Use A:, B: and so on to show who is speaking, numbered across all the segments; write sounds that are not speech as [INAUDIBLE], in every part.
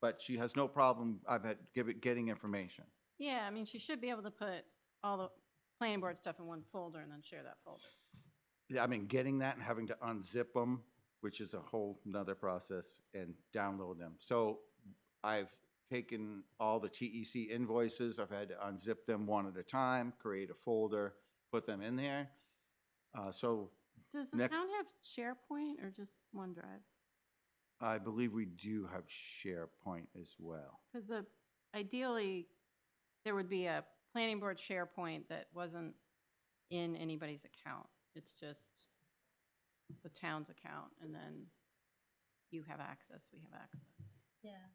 A: but she has no problem, I've had, give it- getting information.
B: Yeah, I mean, she should be able to put all the planning board stuff in one folder and then share that folder.
A: Yeah, I mean, getting that and having to unzip them, which is a whole nother process, and download them. So I've taken all the TEC invoices, I've had to unzip them one at a time, create a folder, put them in there. Uh, so
B: Does the
A: Next-
B: town have SharePoint or just OneDrive?
A: I believe we do have SharePoint as well.
B: Because the, ideally, there would be a planning board SharePoint that wasn't in anybody's account. It's just the town's account, and then you have access, we have access.
C: Yeah.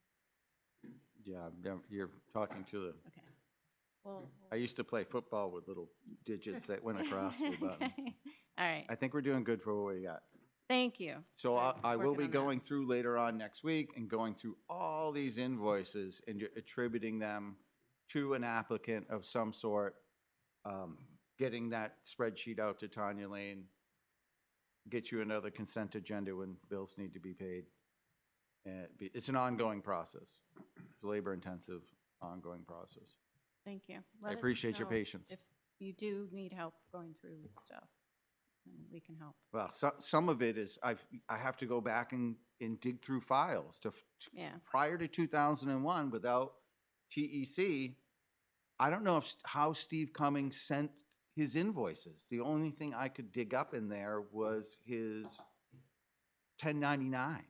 A: Yeah, I've never- you're talking to the,
B: Okay. Well.
A: I used to play football with little digits that went across the buttons.
B: [LAUGHS] Okay. All right,
A: I think we're doing good for what we got.
B: thank you.
A: So I,
B: Right,
A: I will
B: working
A: be
B: on that.
A: going through later on next week and going through all these invoices and ju- attributing them to an applicant of some sort, um, getting that spreadsheet out to Tanya Lane, get you another consent agenda when bills need to be paid. And it'd be- it's an ongoing process, labor-intensive, ongoing process.
B: Thank you.
A: I
B: Let us
A: appreciate your
B: know
A: patience.
B: If you do need help going through stuff, then we can help.
A: Well, so, some of it is, I've, I have to go back and, and dig through files to, f- to
B: Yeah,
A: prior to 2001 without TEC, I don't know if, st- how Steve Cummings sent his invoices. The only thing I could dig up in there was his 1099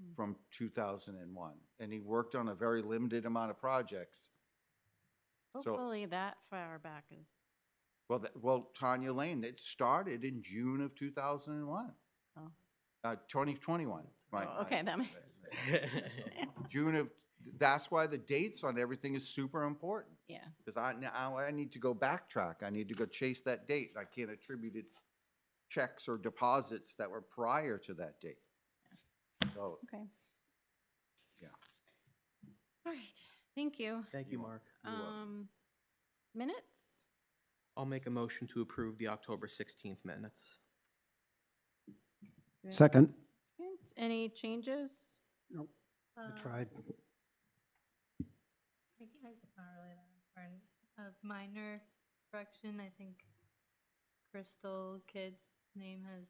B: Hmm.
A: from 2001. And he worked on a very limited amount of projects. So-
B: hopefully that far back is,
A: Well, that, well, Tanya Lane, it started in June of 2001.
B: Oh.
A: Uh, 2021. my-
B: Oh,
A: my-
B: okay, that makes.
A: [LAUGHS] June of, that's why the dates on everything is super important.
B: Yeah,
A: Because I, now I need to go backtrack. I need to go chase that date. I can't attribute it checks or deposits that were prior to that date. So,
B: okay.
A: Yeah.
B: All right, thank you.
D: [LAUGHS] Thank you, Mark.
A: You're welcome.
B: Um, minutes?
D: I'll make a motion to approve the October 16th minutes.
B: Do we have
E: Second.
B: seconds? Any changes?
E: Nope, I
C: uh,
E: tried.
C: I think it's not really that important. A minor correction, I think Crystal Kid's name has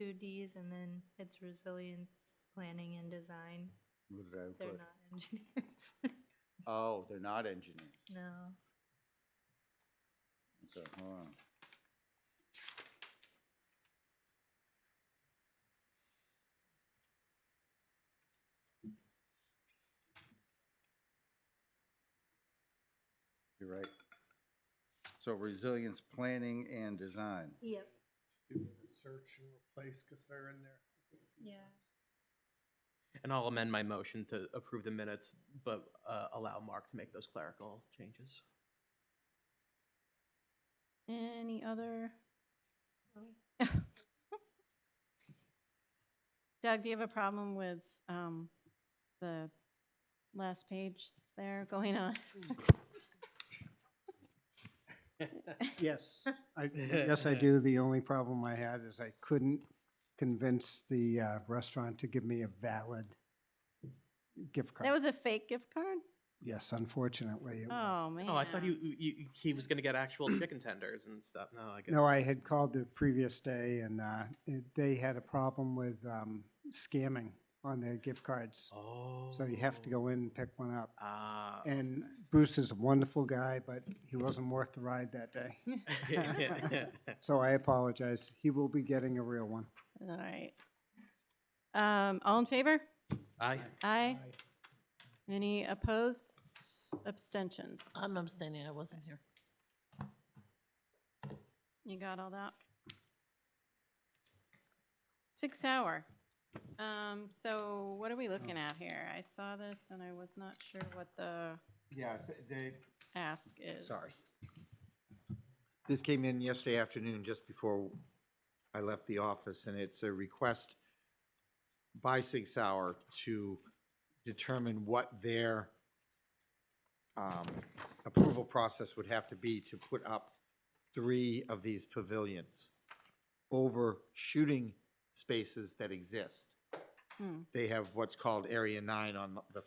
C: two Ds and then it's resilience planning and design.
A: what did I
C: They're
A: put?
C: not engineers. [LAUGHS]
A: Oh, they're not engineers.
C: No.
A: So, hold on. You're right. So resilience planning and design.
C: Yep.
F: search and replace because they're in there.
C: Yeah.
D: And I'll amend my motion to approve the minutes, but uh, allow Mark to make those clerical changes.
B: Any other? [LAUGHS]
C: Oh.
B: Doug, do you have a problem with, um, the last page there going on?
E: Yes, I, yes, I do. The only problem I had is I couldn't convince the uh, restaurant to give me a valid gift card.
B: That was a fake gift card?
E: Yes, unfortunately. it was.
B: Oh, man.
D: Oh, I thought you, you, he was gonna get [COUGHS] actual chicken tenders and stuff. No, I guess.
E: No, I had called the previous day and uh, it- they had a problem with um, scamming on their gift cards.
D: Oh.
E: So you have to go in and pick one up.
D: Ah. [LAUGHS]
E: And [LAUGHS] Bruce is a wonderful guy, but he wasn't worth the ride that day. So I apologize. He will be getting a real one.
B: All right. Um, all in favor?
D: Aye.
B: Aye. Any opposed, abstentions?
G: I'm abstaining, I wasn't here.
B: You got all that? Six hour. Um, so what are we looking at here? I saw this and I was not sure what the
H: Yes, they,
B: ask is.
H: sorry. This came in yesterday afternoon, just before I left the office, and it's a request by Six Hour to determine what their um, approval process would have to be to put up three of these pavilions over shooting spaces that exist.
B: Hmm.
H: They have what's called Area Nine on the